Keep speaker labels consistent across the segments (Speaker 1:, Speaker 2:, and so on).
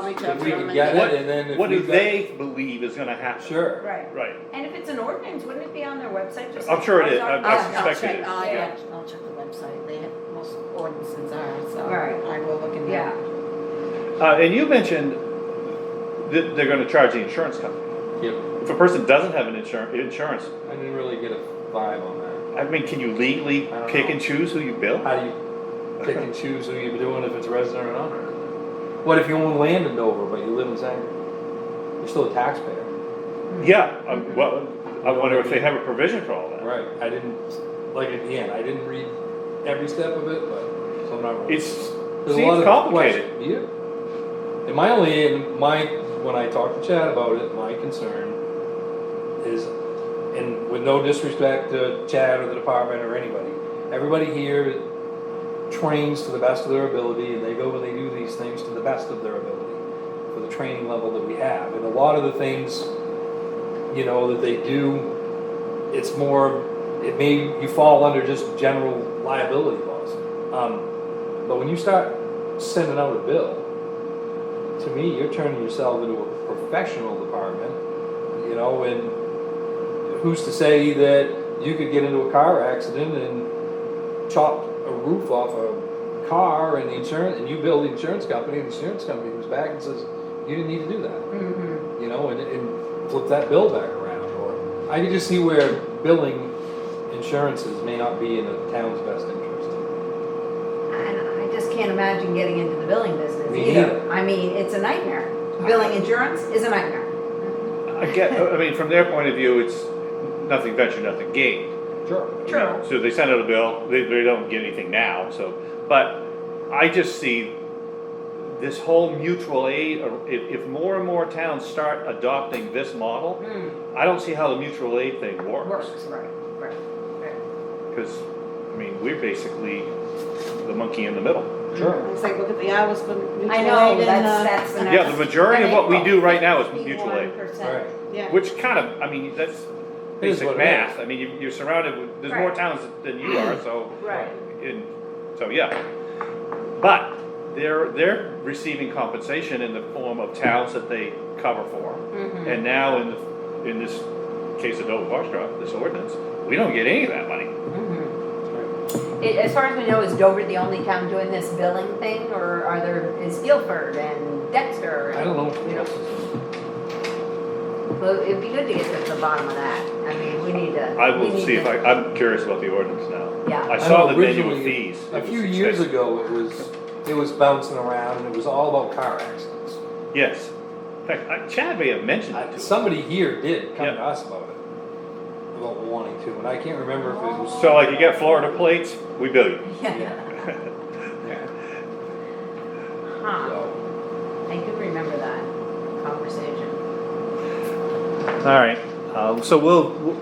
Speaker 1: we talked
Speaker 2: If we
Speaker 1: about
Speaker 2: can
Speaker 1: Monday.
Speaker 2: get
Speaker 3: What-
Speaker 2: it and then if we.
Speaker 3: What do
Speaker 2: got-
Speaker 3: they believe is gonna happen?
Speaker 2: Sure.
Speaker 4: Right.
Speaker 3: Right,
Speaker 4: And if it's an ordinance, wouldn't it be on their website? just
Speaker 3: I'm
Speaker 4: like
Speaker 3: sure it
Speaker 4: ours
Speaker 3: is.
Speaker 4: are?
Speaker 3: I- I
Speaker 4: Oh,
Speaker 1: I'll
Speaker 3: suspect it
Speaker 1: check,
Speaker 3: is,
Speaker 1: I'll,
Speaker 4: yeah.
Speaker 1: I'll check the website, they have, most ordinances are, so
Speaker 4: Right.
Speaker 1: I will look in
Speaker 4: Yeah,
Speaker 1: that.
Speaker 3: uh, and you mentioned that they're gonna charge the insurance company.
Speaker 2: Yep,
Speaker 3: If a person doesn't have an insurance, insurance,
Speaker 2: I didn't really get a vibe on that.
Speaker 3: I mean, can you legally
Speaker 2: I don't
Speaker 3: pick
Speaker 2: know.
Speaker 3: and choose who you bill?
Speaker 2: How do you pick and choose who you're doing if it's resident or non-resident? What if you own land in Dover, but you live in Sangerville? You're still a taxpayer.
Speaker 3: Yeah, um, well, I wonder if they have a provision for all that.
Speaker 2: Right, I didn't, like, again, I didn't read every step of it, but, so I'm not.
Speaker 3: It's,
Speaker 2: There's a lot
Speaker 3: seems
Speaker 2: of
Speaker 3: complicated.
Speaker 2: questions. Yeah. And my only, and my, when I talked to Chad about it, my concern is, and with no disrespect to Chad or the department or anybody, everybody here trains to the best of their ability and they go and they do these things to the best of their ability for the training level that we have. And a lot of the things, you know, that they do it's more, it may, you fall under just general liability laws. Um, but when you start sending out a bill, to me, you're turning yourself into a professional department, you know, and who's to say that you could get into a car accident and chop a roof off a car and the insurance, and you bill the insurance company, and the insurance company comes back and says, you didn't need to do that
Speaker 4: Mm-hmm.
Speaker 1: Mhm.
Speaker 2: you know, and, and flip that bill back around. Or I can just see where billing insurances may not be in the town's best interest.
Speaker 1: I, I just can't imagine getting into the billing business
Speaker 2: Me
Speaker 1: either.
Speaker 2: neither.
Speaker 1: I mean, it's a nightmare. Billing insurance is a nightmare.
Speaker 3: I get, I mean, from their point of view, it's nothing ventured, nothing gained.
Speaker 2: Sure.
Speaker 4: true.
Speaker 3: So they send out a bill, they, they don't get anything now, so, but I just see this whole mutual aid, or if, if more and more towns start adopting this model,
Speaker 4: Mm,
Speaker 3: I don't see how the mutual aid thing works.
Speaker 4: Works, right, right, right.
Speaker 3: Because, I mean, we're basically the monkey in the middle.
Speaker 2: Sure.
Speaker 5: It's like, look at the hours for mutual
Speaker 4: I know,
Speaker 5: aid and,
Speaker 4: that's,
Speaker 5: uh,
Speaker 4: that's the next.
Speaker 3: Yeah, the majority of what we do right now is mutual aid,
Speaker 2: Right.
Speaker 5: Yeah.
Speaker 3: which kind of, I mean, that's
Speaker 2: It is what
Speaker 3: basic
Speaker 2: it
Speaker 3: math. I mean, you- you're surrounded with, there's more
Speaker 4: Right.
Speaker 3: towns than you are, so.
Speaker 4: Right.
Speaker 3: And, so, yeah. But they're, they're receiving compensation in the form of towns that they cover for.
Speaker 4: Mhm.
Speaker 3: And now in the, in this case of Dover Foxtrot, this ordinance, we don't get any of that money.
Speaker 4: Mhm. It- As far as we know, is Dover the only town doing this billing thing, or are there, is Guilford and Dexter? and-
Speaker 2: I don't know.
Speaker 4: You
Speaker 2: what
Speaker 4: know,
Speaker 2: else is in it.
Speaker 4: well, it'd be good to get to the bottom of that, I mean, we need to.
Speaker 3: I
Speaker 4: we
Speaker 3: will
Speaker 4: need
Speaker 3: see if
Speaker 4: to-
Speaker 3: I, I'm curious about the ordinance now.
Speaker 4: Yeah.
Speaker 3: I saw
Speaker 2: know
Speaker 3: the manual
Speaker 2: originally,
Speaker 3: fees. It
Speaker 2: A
Speaker 3: was
Speaker 2: few years
Speaker 3: expensive.
Speaker 2: ago, it was, it was bouncing around and it was all about car accidents.
Speaker 3: Yes. In fact, I- Chad may have mentioned it
Speaker 2: I-
Speaker 3: to us.
Speaker 2: Somebody here did come
Speaker 3: Yeah.
Speaker 2: to us about it, about wanting to, and I can't remember if it was.
Speaker 3: So like you get Florida plates, we bill you.
Speaker 4: Yeah,
Speaker 2: Yeah.
Speaker 4: huh,
Speaker 2: So,
Speaker 4: I do remember that conversation.
Speaker 3: All right, um, so we'll, we'll-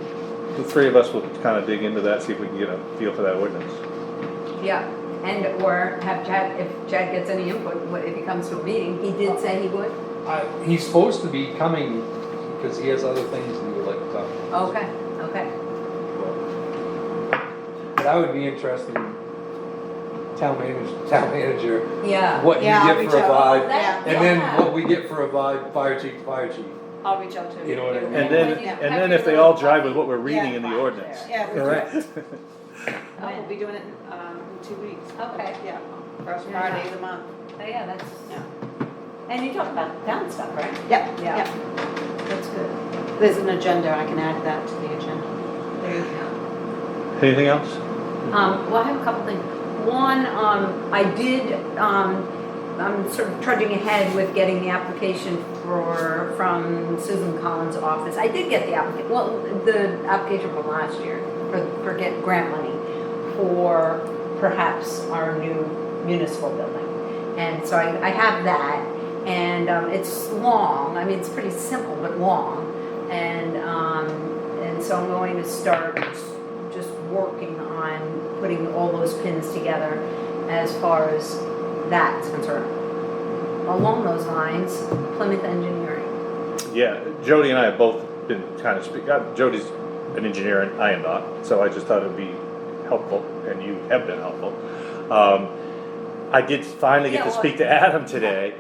Speaker 3: the three of us will kind of dig into that, see if we can get a feel for that ordinance.
Speaker 4: Yeah, and or have Chad, if Chad gets any input, what- if he comes to a meeting, he did say he would,
Speaker 2: I, he's supposed to be coming because he has other things he would like to talk about.
Speaker 4: okay, okay.
Speaker 2: But I would be interested in town manager, town manager,
Speaker 4: Yeah.
Speaker 2: what you
Speaker 5: Yeah, I'll
Speaker 2: get
Speaker 5: reach
Speaker 2: for a
Speaker 5: out.
Speaker 2: vibe.
Speaker 4: That-
Speaker 2: And then
Speaker 4: yeah.
Speaker 2: what we get for a vibe, fire chief, fire chief.
Speaker 5: I'll reach out to
Speaker 2: You know what I mean?
Speaker 3: And then, and then if they all drive with what we're reading in the ordinance.
Speaker 5: Yeah. we do. Oh, we'll
Speaker 4: Okay,
Speaker 5: be doing it, um, in two weeks.
Speaker 4: Okay.
Speaker 5: Yeah, first
Speaker 4: Yeah.
Speaker 5: Friday of the month.
Speaker 4: Oh, yeah, that's,
Speaker 5: Yeah.
Speaker 4: and you talk about town stuff, right?
Speaker 5: Yep,
Speaker 4: Yeah.
Speaker 5: yep.
Speaker 4: That's good.
Speaker 5: There's an agenda, I can add that to the agenda.
Speaker 4: There you go.
Speaker 3: Anything else?
Speaker 4: Um, well, I have a couple things. One, um, I did, um, I'm sort of trudging ahead with getting the application for, from Susan Collins' office. I did get the applica, well, the application from last year for, for get grant money for perhaps our new municipal building. And so I, I have that, and, um, it's long, I mean, it's pretty simple, but long. And, um, and so I'm going to start just working on putting all those pins together as far as that's concerned. Along those lines, Plymouth Engineering.
Speaker 3: Yeah, Jody and I have both been kind of speak, uh, Jody's an engineer and I am not, so I just thought it'd be helpful, and you have been helpful. Um, I did finally get
Speaker 4: Yeah,
Speaker 3: to
Speaker 4: well-
Speaker 3: speak to Adam today,